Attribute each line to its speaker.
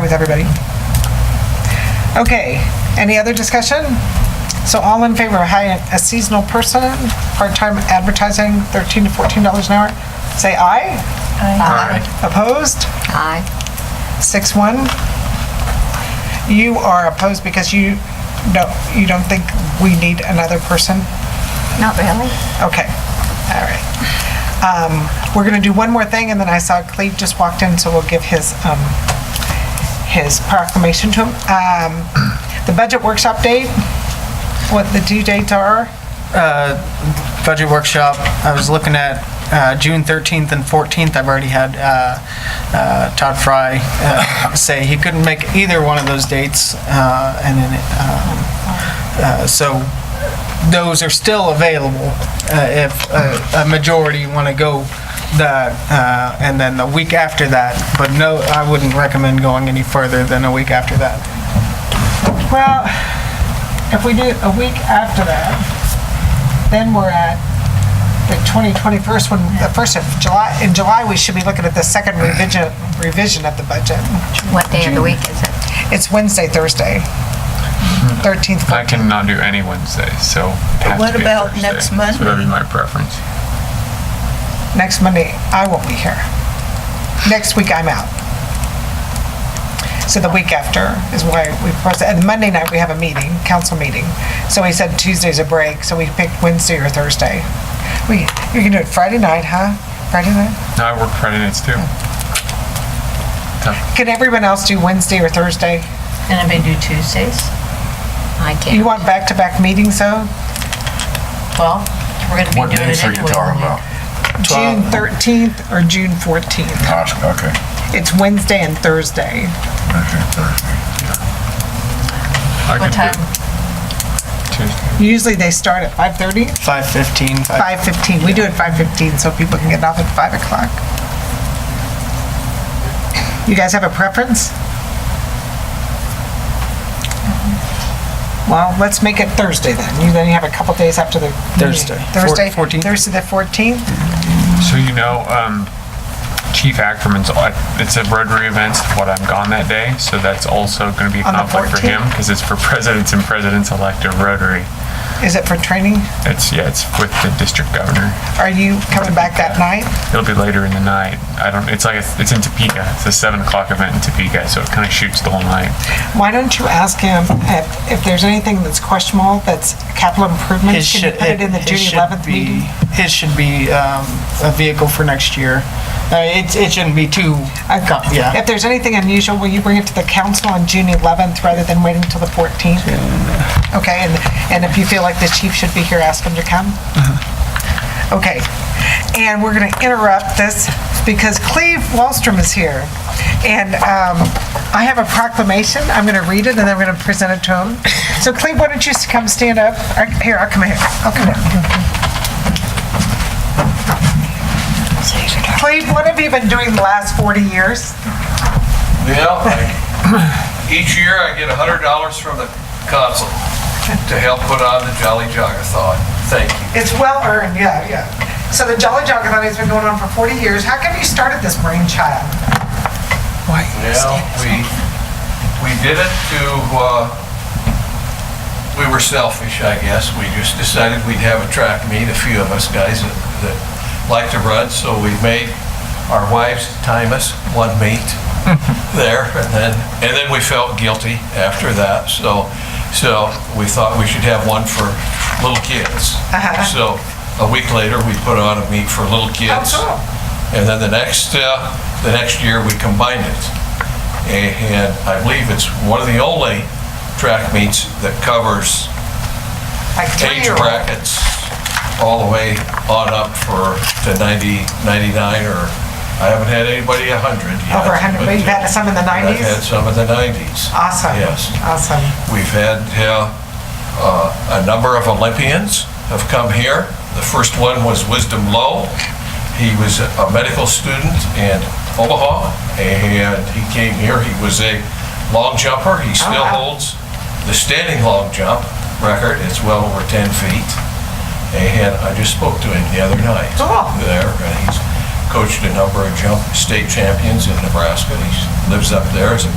Speaker 1: with everybody. Okay, any other discussion? So all in favor of hiring a seasonal person, part-time advertising, $13 to $14 an hour, say aye.
Speaker 2: Aye.
Speaker 1: Opposed?
Speaker 3: Aye.
Speaker 1: Six one. You are opposed because you don't, you don't think we need another person?
Speaker 3: Not really.
Speaker 1: Okay, all right. Um, We're going to do one more thing, and then I saw Cleve just walked in, so we'll give his, um, his proclamation to him. Um, The budget workshop date, what the due dates are,
Speaker 2: Uh, Budget workshop, I was looking at uh, June 13th and 14th. I've already had uh, uh, Todd Fry uh, say he couldn't make either one of those dates. uh, And then, um, uh, so those are still available uh, if uh, a majority want to go that, uh, and then the week after that. But no, I wouldn't recommend going any further than a week after that.
Speaker 1: Well, if we do it a week after that, then we're at the 20, 21st, when, the first of July, in July, we should be looking at the second revision, revision of the budget.
Speaker 3: What day of the week is it?
Speaker 1: It's Wednesday, Thursday, 13th.
Speaker 4: I cannot do any Wednesday, so. it has to
Speaker 5: What
Speaker 4: be a
Speaker 5: about
Speaker 4: Thursday.
Speaker 5: next
Speaker 4: So That'd
Speaker 5: Monday?
Speaker 4: be my preference.
Speaker 1: Next Monday, I won't be here. Next week, I'm out. So the week after is why we, process- and Monday night, we have a meeting, council meeting. So we said Tuesday's a break, so we picked Wednesday or Thursday. We, you can do it Friday night, huh? Friday night?
Speaker 4: No, I work Friday nights too.
Speaker 1: Can everyone else do Wednesday or Thursday?
Speaker 5: And I may do Tuesdays.
Speaker 3: I
Speaker 1: You
Speaker 3: can't.
Speaker 1: want back-to-back meetings, though?
Speaker 5: Well, we're gonna
Speaker 6: What
Speaker 5: be doing it
Speaker 6: dates are you
Speaker 5: anyway.
Speaker 6: talking about?
Speaker 1: June 13th or June 14th?
Speaker 6: Gosh, Okay,
Speaker 1: It's Wednesday and Thursday.
Speaker 6: okay, Thursday.
Speaker 4: I
Speaker 5: What time?
Speaker 4: can do Tuesday.
Speaker 1: Usually, they start at 5:30?
Speaker 2: 5:15, 5
Speaker 1: 5:15, we do it 5:15, so people can get off at 5 o'clock. You guys have a preference? Well, let's make it Thursday then, you then you have a couple days after the meeting.
Speaker 2: Thursday. Four-
Speaker 1: Thursday,
Speaker 2: 14th.
Speaker 1: Thursday the 14th?
Speaker 4: So you know, um, Chief Ackerman's, uh, it's a Rotary event, what I'm gone that day, so that's also gonna be a
Speaker 1: On the
Speaker 4: conflict for him, because it's for presidents and presidents-elect of Rotary.
Speaker 1: Is it for training?
Speaker 4: It's, yeah, it's with the district governor.
Speaker 1: Are you coming back that night?
Speaker 4: It'll be later in the night. I don't, it's like, it's in Topeka. It's a seven o'clock event in Topeka, so it kind of shoots the whole night.
Speaker 1: Why don't you ask him if, if there's anything that's questionable, that's capital improvements? Can you put it in the
Speaker 2: his
Speaker 1: June
Speaker 2: should
Speaker 1: 11th
Speaker 2: be-
Speaker 1: meeting?
Speaker 2: His should be um, a vehicle for next year. Uh, It, it shouldn't be too, com-
Speaker 1: Okay. If
Speaker 2: yeah.
Speaker 1: there's anything unusual, will you bring it to the council on June 11th rather than waiting till the 14th? Okay, and, and if you feel like the chief should be here, ask him to come? Okay, and we're going to interrupt this because Cleve Wallstrom is here. And um, I have a proclamation, I'm going to read it and then I'm going to present it to him. So Cleve, why don't you s- come stand up? I- Here, I'll come here, I'll come here. Cleve, what have you been doing the last 40 years?
Speaker 7: Yeah, I- each year I get hundred dollars from the council to help put on the Jolly Jogathon. Thank you.
Speaker 1: It's well earned, yeah, yeah. So the Jolly Jogathon has been going on for 40 years. How come you started this brainchild?
Speaker 7: Well, we, we did it to, uh, we were selfish, I guess. We just decided we'd have a track meet, a few of us guys that that like to run, so we made our wives time us one meet there, and then, and then we felt guilty after that, so, so we thought we should have one for little kids.
Speaker 1: Uh-huh.
Speaker 7: So a week later, we put on a meet for little kids.
Speaker 1: cool.
Speaker 7: And then the next, uh, the next year, we combined it. A- And I believe it's one of the only track meets that covers
Speaker 1: Like
Speaker 7: age
Speaker 1: three-year-old?
Speaker 7: brackets all the way on up for, to 90, 99, or, I haven't had anybody 100 yet.
Speaker 1: Over 100,
Speaker 7: but,
Speaker 1: we've had some in the
Speaker 7: uh, I've
Speaker 1: 90s?
Speaker 7: had some in the 90s.
Speaker 1: Awesome.
Speaker 7: Yes.
Speaker 1: Awesome.
Speaker 7: We've had uh, uh, a number of Olympians have come here. The first one was Wisdom Lowe. He was a medical student in Omaha, and he came here. He was a long jumper. He still
Speaker 1: Oh, wow.
Speaker 7: holds the standing long jump record. It's well over 10 feet. And I just spoke to him the other night
Speaker 1: Cool.
Speaker 7: there, and he's coached a number of jump state champions in Nebraska. He lives up there as a